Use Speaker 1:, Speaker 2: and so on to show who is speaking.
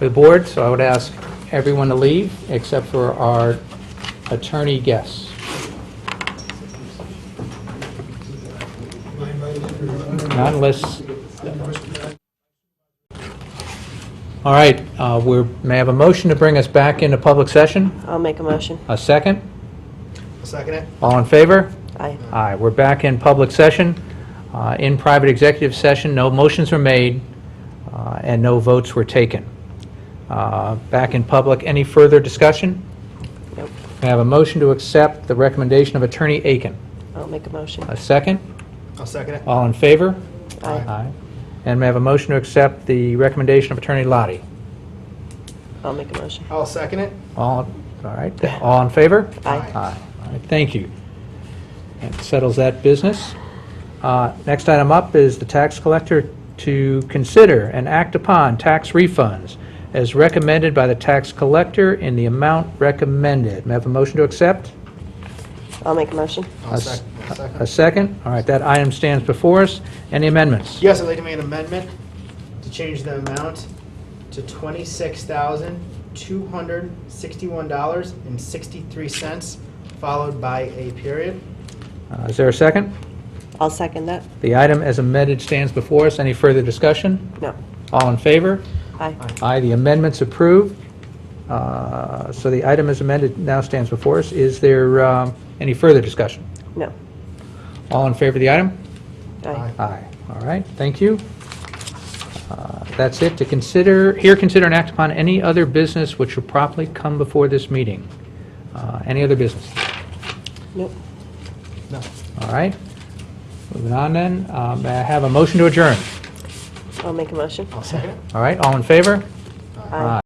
Speaker 1: for the board, so I would ask everyone to leave except for our attorney guests. Not unless... All right, uh, we're, may I have a motion to bring us back into public session?
Speaker 2: I'll make a motion.
Speaker 1: A second?
Speaker 3: Second it?
Speaker 1: All in favor?
Speaker 2: Aye.
Speaker 1: Aye, we're back in public session. Uh, In private executive session, no motions were made uh, and no votes were taken. Uh, Back in public, any further discussion?
Speaker 2: Nope.
Speaker 1: May I have a motion to accept the recommendation of Attorney Aiken?
Speaker 2: I'll make a motion.
Speaker 1: A second?
Speaker 3: I'll second it.
Speaker 1: All in favor?
Speaker 2: Aye.
Speaker 1: And may I have a motion to accept the recommendation of Attorney Lottie?
Speaker 2: I'll make a motion.
Speaker 3: I'll second it.
Speaker 1: All, all right, all in favor?
Speaker 2: Aye.
Speaker 1: Aye. All right, Thank you. That settles that business. Uh, Next item up is the tax collector to consider and act upon tax refunds as recommended by the tax collector in the amount recommended. May I have a motion to accept?
Speaker 2: I'll make a motion.
Speaker 3: I'll sec- I'll
Speaker 1: A
Speaker 3: second.
Speaker 1: second? All right, that item stands before us. Any amendments?
Speaker 3: Yes, I'd like to make an amendment to change the amount to twenty-six thousand, two hundred, sixty-one dollars and sixty-three cents, followed by a period.
Speaker 1: Uh, Is there a second?
Speaker 2: I'll second that.
Speaker 1: The item as amended stands before us. Any further discussion?
Speaker 2: No.
Speaker 1: All in favor?
Speaker 2: Aye.
Speaker 1: Aye, the amendment's approved. Uh, So the item as amended now stands before us. Is there um, any further discussion?
Speaker 2: No.
Speaker 1: All in favor of the item?
Speaker 2: Aye.
Speaker 1: Aye. All right, thank you. Uh, That's it. To consider, here consider and act upon any other business which should properly come before this meeting. Uh, Any other business?
Speaker 2: Nope.
Speaker 3: No.
Speaker 1: All right. Moving on then, Uh, may I have a motion to adjourn?
Speaker 2: I'll make a motion.
Speaker 3: I'll second it.
Speaker 1: All right, all in favor?
Speaker 2: Aye.